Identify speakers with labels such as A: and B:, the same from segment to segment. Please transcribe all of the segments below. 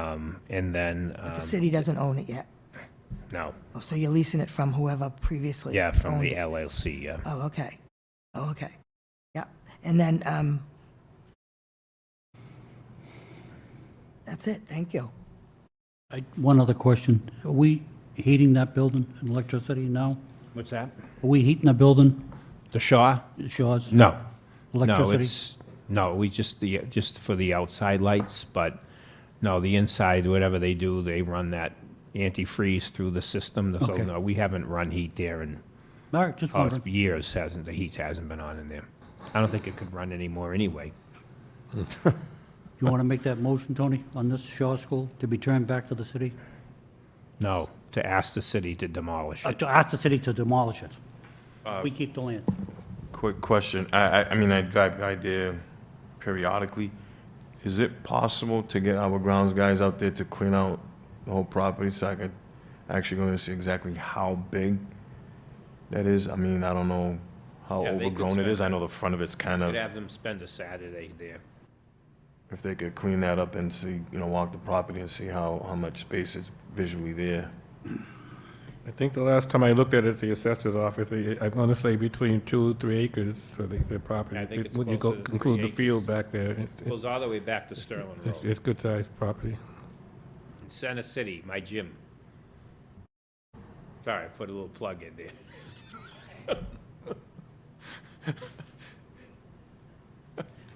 A: Um, and then, um,
B: The city doesn't own it yet.
A: no,
B: Oh, so you're leasing it from whoever previously
A: yeah, from
B: owned
A: the
B: it.
A: LLC, yeah.
B: Oh, okay. Oh, okay. Yep. And then, um, that's it. Thank you.
C: I- One other question. Are we heating that building in electricity now?
D: What's that?
C: Are we heating the building,
D: The Shaw?
C: Shaw's?
D: No. No,
C: Electricity?
D: it's, no, we just, the, just for the outside lights, but no, the inside, whatever they do, they run that antifreeze through the system. So
C: Okay.
D: no, we haven't run heat there in,
C: All right, just
D: oh,
C: wondering.
D: it's years, hasn't, the heat hasn't been on in there. I don't think it could run anymore anyway.
C: You want to make that motion, Tony, on this Shaw School to be turned back to the city?
D: No, to ask the city to demolish
C: Uh,
D: it.
C: To ask the city to demolish it?
D: Uh,
C: We keep the land.
E: Quick question. I, I, I mean, I drive by there periodically. Is it possible to get our grounds guys out there to clean out the whole property so I could actually go and see exactly how big that is? I mean, I don't know how
D: Yeah, they could
E: overgrown it
D: spend-
E: is. I know the front of it's kind
D: Could
E: of,
D: have them spend a Saturday there.
E: if they could clean that up and see, you know, walk the property and see how, how much space is visually there.
F: I think the last time I looked at it, the assessor's office, they- I want to say between two, three acres for the, the property.
D: I think it's
F: When you go-
D: closer to three
F: Include the
D: acres.
F: field back there. it- it-
D: Goes all the way back to Sterling
F: It's,
D: Road.
F: it's good sized property.
D: In Center City, my gym. Sorry, I put a little plug in there.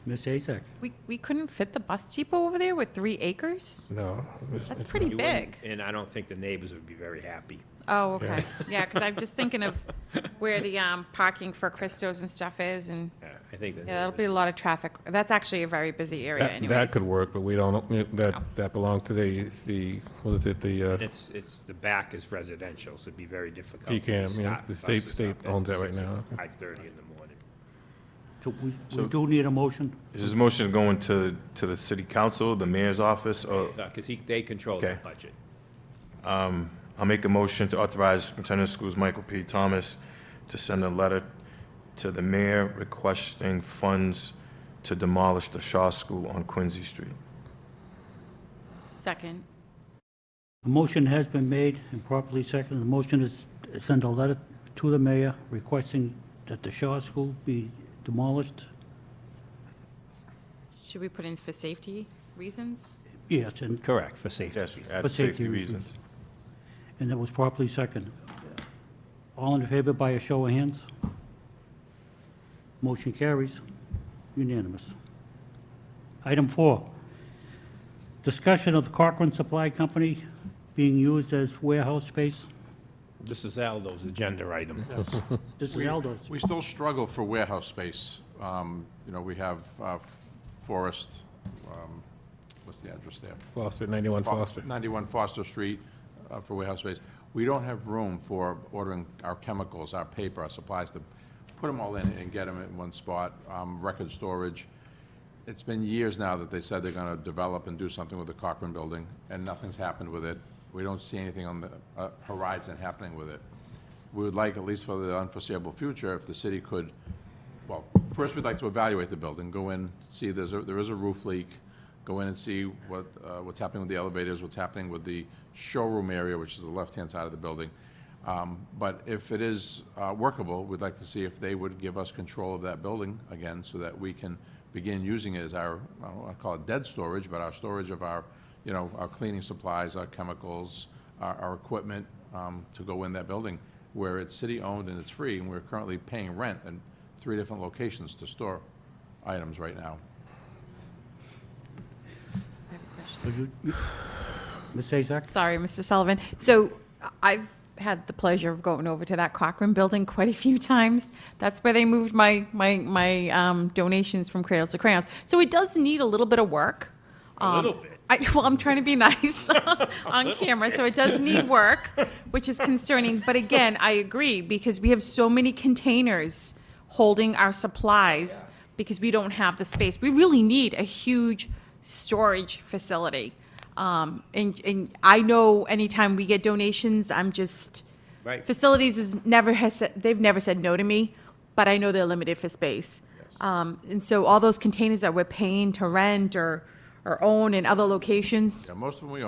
C: Miss Azak?
G: We, we couldn't fit the bus depot over there with three acres?
F: No. it's-
G: That's pretty
D: You wouldn't-
G: big.
D: And I don't think the neighbors would be very happy.
G: Oh, okay. Yeah, because I'm just thinking of where the um, parking for Christos and stuff is, and
D: Yeah, I think the
G: yeah, that'll
D: neighbors-
G: be a lot of traffic. That's actually a very busy area
F: That, that
G: anyways.
F: could work, but we don't, that, that belongs to the, the, what is it, the, uh,
D: It's, it's, the back is residential, so it'd be very difficult.
F: You can't,
D: to
F: yeah,
D: stop
F: the state-
D: buses
F: state
D: up at
F: owns that right
D: 6
F: now.
D: or 5:30 in the morning.
C: So we, we do need a motion?
E: Is this motion going to, to the city council, the mayor's office, or
D: Because he, they control the
E: Okay.
D: budget.
E: I'll make a motion to authorize Superintendent of Schools Michael P. Thomas to send a letter to the mayor requesting funds to demolish the Shaw School on Quincy Street.
G: Second.
C: A motion has been made and properly seconded. The motion is to send a letter to the mayor requesting that the Shaw School be demolished.
G: Should we put in for safety reasons?
C: Yes, and
D: Correct, for safety.
E: Yes,
C: For safety
E: for safety
C: reasons.
E: reasons.
C: And that was properly seconded. All in favor by a show of hands? Motion carries. Unanimous. Item four, discussion of Cochran Supply Company being used as warehouse space.
D: This is Aldo's agenda item.
C: This is Aldo's.
H: We still struggle for warehouse space. Um, You know, we have uh, Forest, um, what's the address there?
F: Foster, 91 Foster.
H: 91 Foster Street uh, for warehouse space. We don't have room for ordering our chemicals, our paper, our supplies, to put them all in and get them in one spot, Um, record storage. It's been years now that they said they're going to develop and do something with the Cochran Building, and nothing's happened with it. We don't see anything on the uh, horizon happening with it. We would like, at least for the unforeseeable future, if the city could, well, first, we'd like to evaluate the building, go in, see, there's, a- there is a roof leak, go in and see what, uh, what's happening with the elevators, what's happening with the showroom area, which is the left-hand side of the building. Um, But if it is uh, workable, we'd like to see if they would give us control of that building again, so that we can begin using it as our, I don't want to call it dead storage, but our storage of our, you know, our cleaning supplies, our chemicals, our, our equipment um, to go in that building, where it's city-owned and it's free, and we're currently paying rent in three different locations to store items right now.
G: I have a question.
C: So you- you- Ms. Azak?
G: Sorry, Mr. Sullivan. So I've had the pleasure of going over to that Cochrane building quite a few times. That's where they moved my, my, my um, donations from Cradles to Crayons. So it does need a little bit of work. A
D: little bit.
G: Um, I, well, I'm trying to be nice on camera, so it does need work, which is concerning. But again, I agree because we have so many containers holding our supplies because we don't have the space. We really need a huge storage facility. Um, and, and I know anytime we get donations, I'm just
D: Right.
G: facilities is never has said, they've never said no to me, but I know they're limited for space. Um, and so all those containers that we're paying to rent or, or own in other locations,
H: Yeah, most of them we